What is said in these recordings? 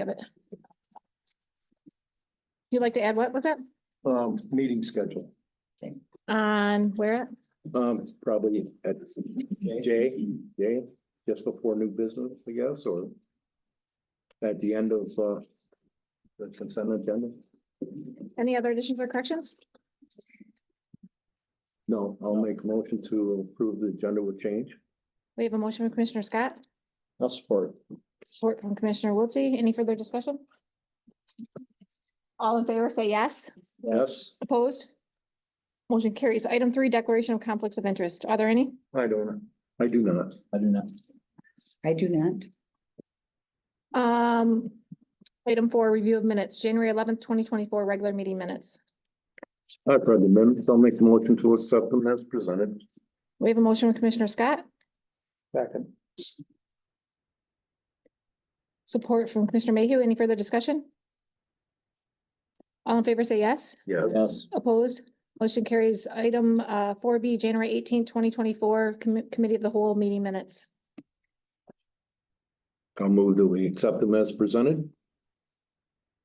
Give it. You'd like to add, what was it? Um, meeting schedule, On where? um, probably at J, J, just before new business, I guess, or at the end of, uh, the consent agenda? Any other additions or corrections? No, I'll make a motion to approve the agenda with change. We have a motion from Commissioner Scott, I'll support. support from Commissioner Wiltie. Any further discussion? All in favor, say yes. Yes, Opposed? Motion carries. Item three, declaration of conflicts of interest. Are there any? I don't, I do not. I do not. I do not. Um, item four, review of minutes, January eleventh, twenty twenty-four, regular meeting minutes. I've read the minutes. I'll make the motion to accept them as presented. We have a motion from Commissioner Scott, Second. support from Commissioner Mayhew. Any further discussion? All in favor, say yes. Yes. Yes, Opposed? Motion carries. Item uh four B, January eighteenth, twenty twenty-four, Committee of the Whole meeting minutes. I'll move that we accept them as presented.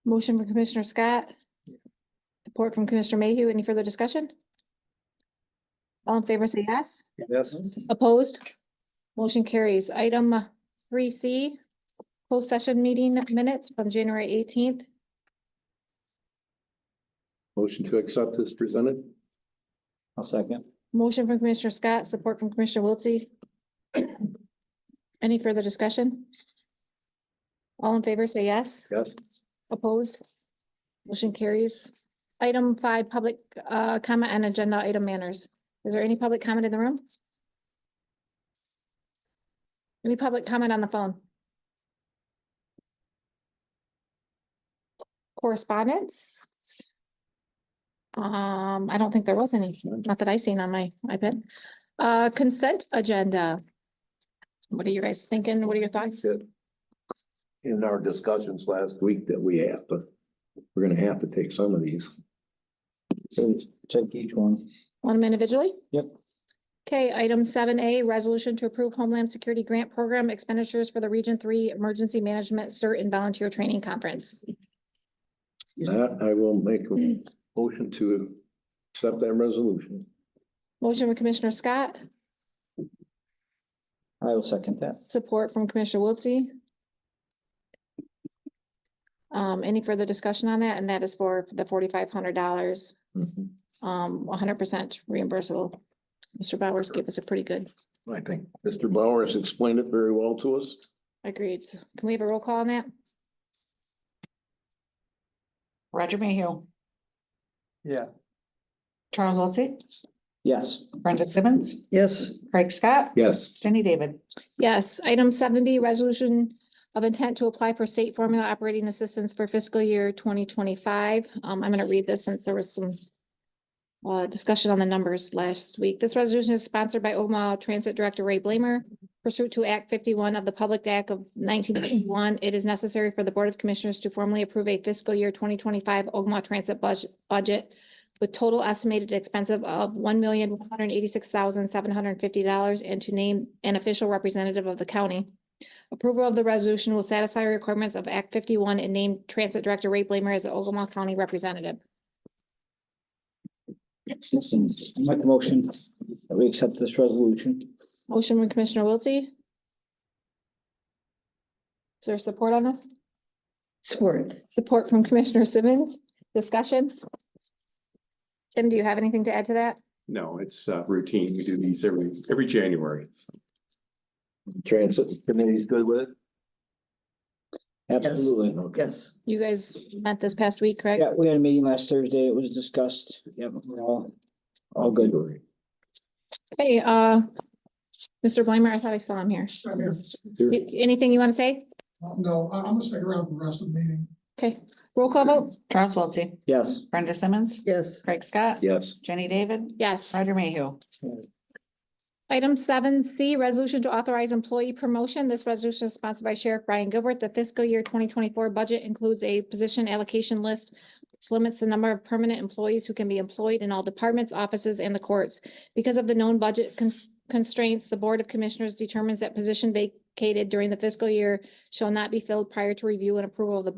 Motion from Commissioner Scott. Support from Commissioner Mayhew. Any further discussion? All in favor, say yes. Yes. Opposed? Motion carries. Item three C, closed session meeting minutes from January eighteenth. Motion to accept is presented. I'll second. Motion from Commissioner Scott, support from Commissioner Wiltie. Any further discussion? All in favor, say yes. Yes. Opposed? Motion carries. Item five, public uh, comment and agenda item manners. Is there any public comment in the room? Any public comment on the phone? Correspondence? Um, I don't think there was any, not that I seen on my iPad. Uh, consent agenda. What are you guys thinking? What are your thoughts? said in our discussions last week that we have to, we're gonna have to take some of these. So take each one. On them individually? Yep. Okay, item seven A, resolution to approve Homeland Security Grant Program expenditures for the Region Three Emergency Management CERT and Volunteer Training Conference. That I will make a motion to accept that resolution. Motion from Commissioner Scott, I will second that. support from Commissioner Wiltie. Um, any further discussion on that? And that is for the forty-five hundred dollars, um, hundred percent reimbursable. Mr. Bowers gave us a pretty good, I think Mr. Bauer has explained it very well to us. agreed. Can we have a roll call on that? Roger Mayhew. Yeah. Charles Wiltie, Yes. Brenda Simmons, Yes. Craig Scott, Yes. Jenny David. Yes, item seven B, resolution of intent to apply for state formula operating assistance for fiscal year twenty twenty-five. Um, I'm gonna read this since there was some uh, discussion on the numbers last week. This resolution is sponsored by Omaha Transit Director Ray Blamer. Pursuant to Act fifty-one of the Public Act of nineteen eighty-one, it is necessary for the Board of Commissioners to formally approve a fiscal year twenty twenty-five Omaha Transit budget, budget with total estimated expense of one million, one hundred eighty-six thousand, seven hundred fifty dollars and to name an official representative of the county. Approval of the resolution will satisfy requirements of Act fifty-one and name Transit Director Ray Blamer as the Ogama County Representative. Listen, make a motion. that We accept this resolution. Motion from Commissioner Wiltie. Is there support on this? Support. Support from Commissioner Simmons. Discussion? Tim, do you have anything to add to that? No, it's uh, routine. We do these every, every January. so. Transit committee's good with it? Absolutely. Okay. Yes. You guys met this past week, correct? Yeah, we had a meeting last Thursday. It was discussed. Yep, we're all, all good. Hey, uh, Mr. Blamer, I thought I saw him here. I'm here. Y- Anything you want to say? Uh, No, I- I'm gonna stick around for the rest of the meeting. Okay, roll call vote? Charles Wiltie, Yes. Brenda Simmons, Yes. Craig Scott, Yes. Jenny David, Yes. Roger Mayhew. Item seven C, resolution to authorize employee promotion. This resolution is sponsored by Sheriff Brian Gilbert. The fiscal year twenty twenty-four budget includes a position allocation list. Which limits the number of permanent employees who can be employed in all departments, offices, and the courts. Because of the known budget cons- constraints, the Board of Commissioners determines that position vac- allocated during the fiscal year shall not be filled prior to review and approval of the